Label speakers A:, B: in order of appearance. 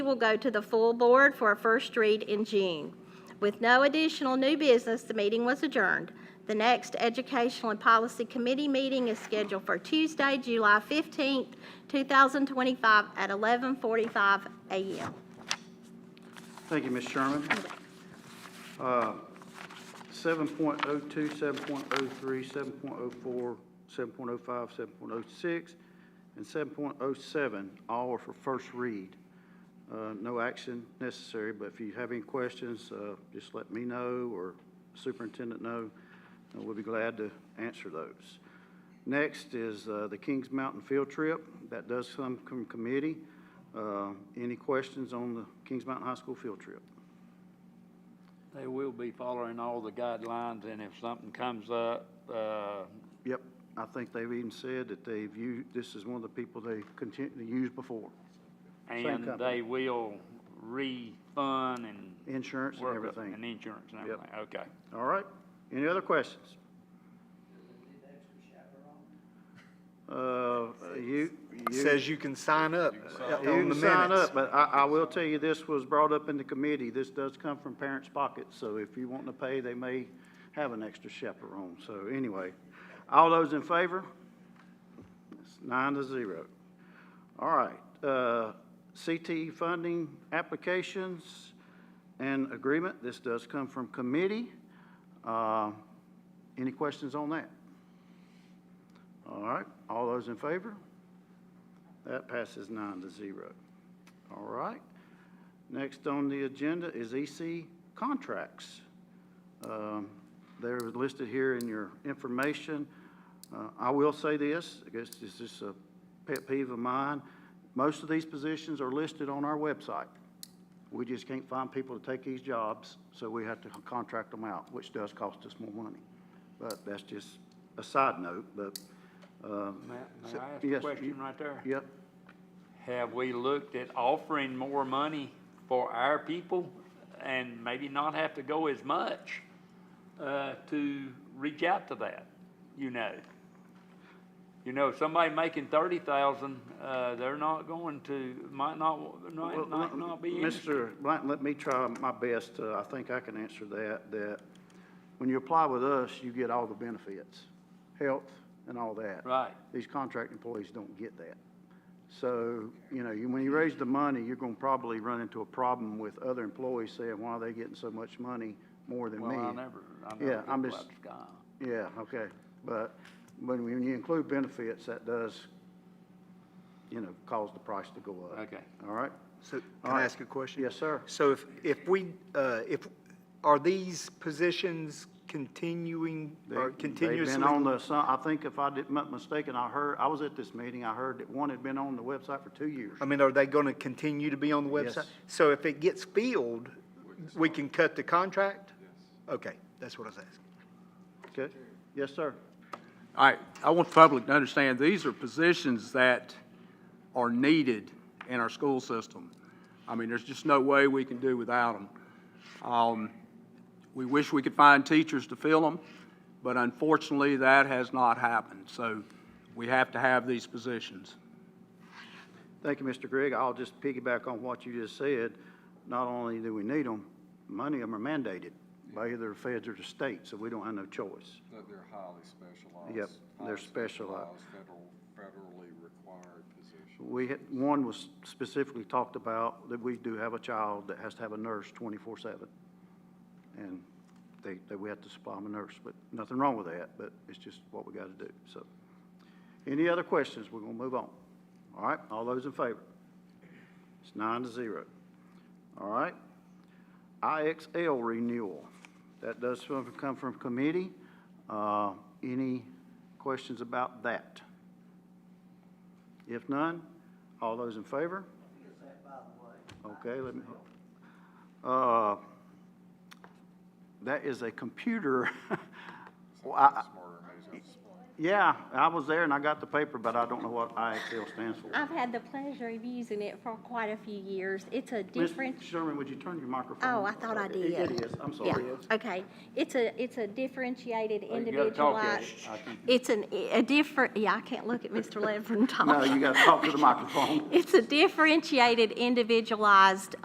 A: will go to the full board for a first read in June. With no additional new business, the meeting was adjourned. The next Educational and Policy Committee meeting is scheduled for Tuesday, July 15th, 2025, at 11:45 a.m.
B: Thank you, Ms. Sherman. Uh, 7.02, 7.03, 7.04, 7.05, 7.06, and 7.07, all are for first read. Uh, No action necessary, but if you have any questions, uh, just let me know or superintendent know, and we'll be glad to answer those. Next is uh, the Kings Mountain Field Trip. That does come from committee. Uh, Any questions on the Kings Mountain High School Field Trip?
C: They will be following all the guidelines, and if something comes up, uh,
B: Yep, I think they've even said that they've used, this is one of the people they continue to use before. Same
C: and
B: company.
C: they will refund and.
B: Insurance and
C: work up-
B: everything.
C: And insurance and
B: Yep.
C: everything, okay.
B: All right, any other questions? Uh, you, you.
D: says you can sign up uh,
B: Yeah,
D: on the
B: You
D: minutes.
B: can sign up, but I, I will tell you, this was brought up in the committee. This does come from parents' pockets, so if you want to pay, they may have an extra chaperone. So anyway, all those in favor? It's nine to zero. All right, uh, CTE funding applications and agreement. This does come from committee. Uh, Any questions on that? All right, all those in favor? That passes nine to zero. All right. Next on the agenda is EC contracts. Um, They're listed here in your information. Uh, I will say this, I guess this is a pet peeve of mine. Most of these positions are listed on our website. We just can't find people to take these jobs, so we have to contract them out, which does cost us more money. But that's just a side note, but, uh,
C: Matt,
B: so-
C: may I ask a
B: yes,
C: question
B: you-
C: right there?
B: Yep,
C: Have we looked at offering more money for our people and maybe not have to go as much, uh, to reach out to that, you know? You know, if somebody making thirty thousand, uh, they're not going to, might not,
B: Well,
C: might, might
B: let-
C: not be interested.
B: Mr. Blanton, let me try my best, uh, I think I can answer that, that when you apply with us, you get all the benefits, health and all that.
C: Right.
B: These contract employees don't get that. So, you know, you- when you raise the money, you're gonna probably run into a problem with other employees saying, why are they getting so much money more than me?
C: Well, I never, I never.
B: Yeah,
C: did
B: I'm
C: go
B: just-
C: out to Sky.
B: Yeah, okay, but when, when you include benefits, that does, you know, cause the price to go up.
C: Okay.
B: All right?
D: So can
B: All
D: I
B: right.
D: ask a question?
B: Yes, sir.
D: So if, if we, uh, if, are these positions continuing
B: They-
D: or
B: They've
D: continuously?
B: been on the, so- I think if I didn't, not mistaken, I heard, I was at this meeting, I heard that one had been on the website for two years.
D: I mean, are they going to continue to be on the
B: Yes.
D: website? So if it gets filled, we can cut the contract? Okay, that's what I was asking.
B: Okay? Yes, sir.
E: All right, I want the public to understand, these are positions that are needed in our school system. I mean, there's just no way we can do without them. Um, we wish we could find teachers to fill them, but unfortunately, that has not happened. So we have to have these positions.
B: Thank you, Mr. Gregg. I'll just piggyback on what you just said. Not only do we need them, many of them are mandated by either the feds or the state, so we don't have no choice.
F: That they're highly specialized.
B: Yep, they're
F: highly
B: specialized.
F: Federal, federally required position.
B: We had, one was specifically talked about that we do have a child that has to have a nurse twenty-four seven. And they, they, we have to supply them a nurse, but nothing wrong with that, but it's just what we gotta do, so. Any other questions? We're gonna move on. All right, all those in favor? It's nine to zero. All right. IXL renewal. That does from- come from committee. Uh, any questions about that? If none, all those in favor? Okay, let me, uh, that is a computer. Well, I-
F: Smarter, maybe it's not smart.
B: Yeah, I was there and I got the paper, but I don't know what IXL stands for.
A: I've had the pleasure of using it for quite a few years. It's a
B: Ms.
A: different.
B: Sherman, would you turn your microphone?
A: Oh, I thought I
B: It-
A: did.
B: It is, I'm sorry.
A: Yeah, okay. It's a, it's a differentiated
C: Oh, you gotta talk at it.
A: individualized.
C: I think-
A: It's an, a different, yeah, I can't look at Mr. Ledford and talk.
B: No, you gotta talk to the microphone.
A: It's a differentiated, individualized